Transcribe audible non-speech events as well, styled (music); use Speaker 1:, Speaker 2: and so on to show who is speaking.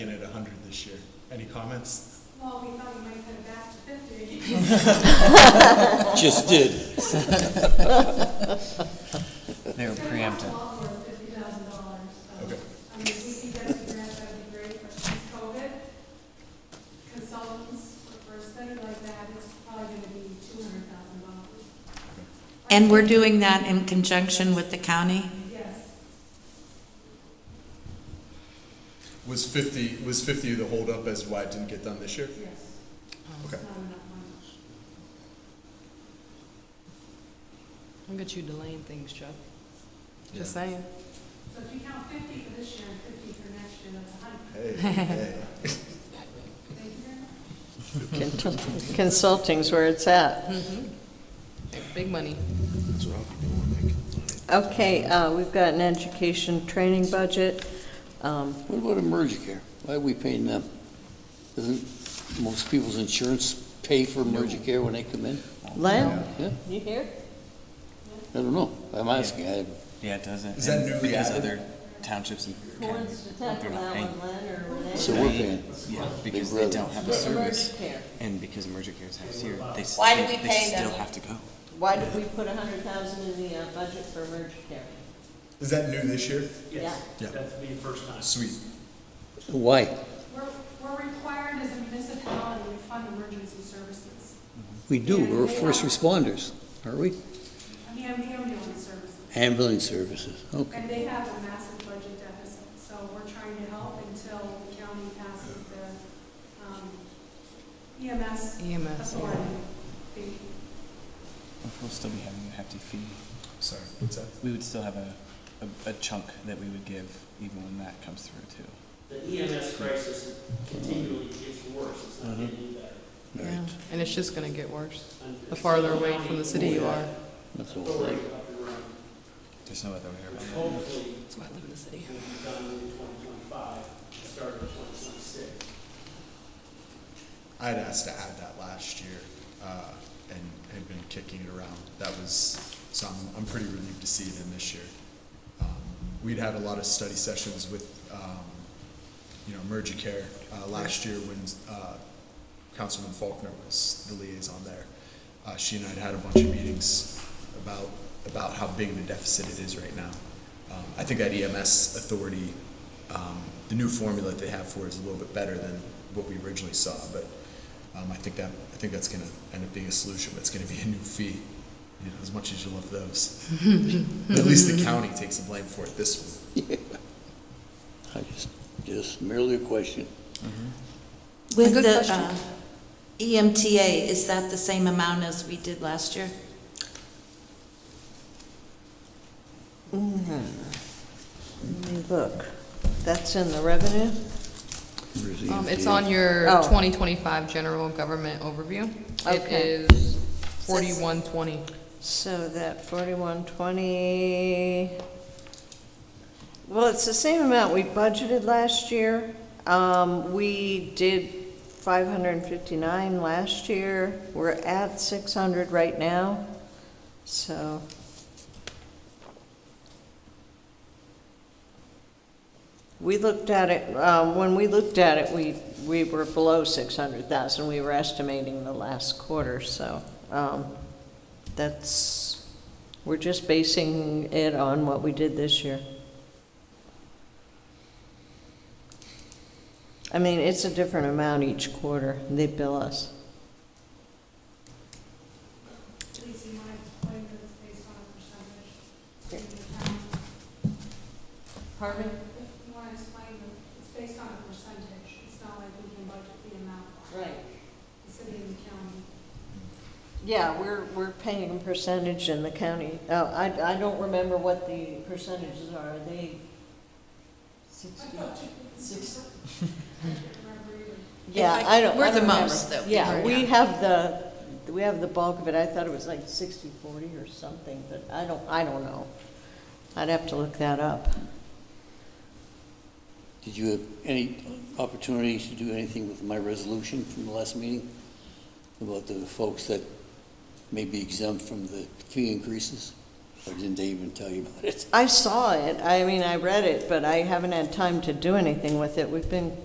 Speaker 1: hundred this year. Any comments?
Speaker 2: Well, we thought we might cut it back to fifty.
Speaker 3: (laughs)
Speaker 2: (laughs)
Speaker 4: Just did.
Speaker 5: They were preempted.
Speaker 2: fifty thousand dollars, so.
Speaker 1: Okay.
Speaker 2: I mean, if we can get a grant, that'd be great, but since COVID, consultants for a study like that, it's probably gonna be two hundred thousand dollars.
Speaker 3: And we're doing that in conjunction with the county?
Speaker 2: Yes,
Speaker 1: Was fifty, was fifty the holdup as to why it didn't get done this year?
Speaker 2: yes,
Speaker 1: Okay.
Speaker 2: not enough money.
Speaker 6: Look at you delaying things, Chuck. Just
Speaker 4: Yeah.
Speaker 6: saying.
Speaker 2: So if you count fifty for this year and fifty for next year, that's a hundred.
Speaker 1: Hey, hey.
Speaker 2: Thank you very much.
Speaker 7: Consulting's where it's at.
Speaker 6: Big money.
Speaker 7: Okay, uh, we've got an education training budget. Um,
Speaker 4: What about Emergicare? Why are we paying them? Doesn't most people's insurance pay for Emergicare when they come in?
Speaker 7: Len,
Speaker 4: Yeah,
Speaker 7: you here?
Speaker 4: I don't know. I'm asking. I,
Speaker 5: Yeah, it doesn't.
Speaker 1: Is that
Speaker 5: and
Speaker 1: newly
Speaker 5: Because
Speaker 1: added?
Speaker 5: other townships and
Speaker 7: Who wants to
Speaker 5: counties,
Speaker 7: tackle
Speaker 5: they're
Speaker 7: that
Speaker 5: not paying.
Speaker 7: one, Len or Renee?
Speaker 4: so we're paying.
Speaker 5: Yeah, because
Speaker 4: brother.
Speaker 5: they don't have a service.
Speaker 7: Emergicare.
Speaker 5: And because Emergicare is half year, they, s-
Speaker 7: Why do we
Speaker 5: they
Speaker 7: pay
Speaker 5: still
Speaker 7: them?
Speaker 5: have to go.
Speaker 7: Why did we put a hundred thousand in the uh, budget for Emergicare?
Speaker 1: Is that new this year?
Speaker 8: Yes,
Speaker 1: Yeah.
Speaker 8: that's the first time.
Speaker 1: Sweet.
Speaker 4: Why?
Speaker 2: We're, we're required as a municipality to fund emergency services.
Speaker 4: We do. We're first responders, aren't we?
Speaker 2: I mean, we ambulance services.
Speaker 4: Ambulance services. Okay.
Speaker 2: And they have a massive budget deficit, so we're trying to help until the county passes the um,
Speaker 7: E
Speaker 2: EMS
Speaker 6: EMS.
Speaker 2: authority.
Speaker 5: We'll still be having a hefty fee.
Speaker 1: Sorry, what's that?
Speaker 5: We would still have a, a, a chunk that we would give even when that comes through too.
Speaker 8: The EMS crisis continually gets worse, it's not getting better.
Speaker 4: All
Speaker 6: Yeah.
Speaker 4: right.
Speaker 6: And it's just gonna get worse,
Speaker 8: And
Speaker 6: the farther away from the city you are.
Speaker 4: That's all.
Speaker 8: Don't worry about the run.
Speaker 5: There's no other way around it.
Speaker 8: Hopefully,
Speaker 6: That's why I live in the city.
Speaker 8: we'll be done in 2025, start in 2026.
Speaker 1: I had asked to add that last year, uh, and had been kicking it around. That was, so I'm, I'm pretty relieved to see it in this year. Um, We'd had a lot of study sessions with, um, you know, Emergicare, uh, last year when, uh, Councilman Faulkner was the liaison there. Uh, she and I had had a bunch of meetings about, about how big the deficit it is right now. Um, I think that EMS authority, um, the new formula that they have for it is a little bit better than what we originally saw, but, um, I think that, I think that's gonna end up being a solution, but it's gonna be a new fee. You know, as much as you love those. At least the county takes the blame for it this one.
Speaker 4: I just, just merely a question.
Speaker 3: With
Speaker 6: good
Speaker 3: the
Speaker 6: question.
Speaker 3: uh, EMTA, is that the same amount as we did last year?
Speaker 7: Let me look. Mm-hmm. That's in the revenue?
Speaker 4: Where's the
Speaker 6: Um, it's
Speaker 4: MTA?
Speaker 6: on your
Speaker 7: Oh.
Speaker 6: 2025 general government overview. It
Speaker 7: Okay.
Speaker 6: is 4120.
Speaker 7: So that forty-one twenty, well, it's the same amount we budgeted last year. Um, we did five hundred and fifty-nine last year. We're at six hundred right now, so. We looked at it, um, when we looked at it, we, we were below six hundred thousand. We were estimating the last quarter, so, um, that's, we're just basing it on what we did this year. I mean, it's a different amount each quarter, they bill us.
Speaker 2: Please, you might explain that it's based on a percentage. in the town.
Speaker 7: Pardon?
Speaker 2: If you want to explain that it's based on a percentage, it's not like we can budget the amount,
Speaker 7: Right.
Speaker 2: the city and the county.
Speaker 7: Yeah, we're, we're paying a percentage in the county. Oh, I, I don't remember what the percentages are, are they
Speaker 2: I
Speaker 7: sixty?
Speaker 2: thought you
Speaker 7: Six.
Speaker 2: (laughs) I can't remember either.
Speaker 7: Yeah,
Speaker 3: If I-
Speaker 7: I don't,
Speaker 3: we're
Speaker 7: I
Speaker 3: the
Speaker 7: don't remember.
Speaker 3: most, though.
Speaker 7: Yeah,
Speaker 3: Right.
Speaker 7: we have the, we have the bulk of it, I thought it was like sixty, forty or something, but I don't, I don't know. I'd have to look that up.
Speaker 4: Did you have any opportunities to do anything with my resolution from the last meeting? About the folks that may be exempt from the fee increases? Or didn't they even tell you about it?
Speaker 7: I saw it, I mean, I read it, but I haven't had time to do anything with it, we've been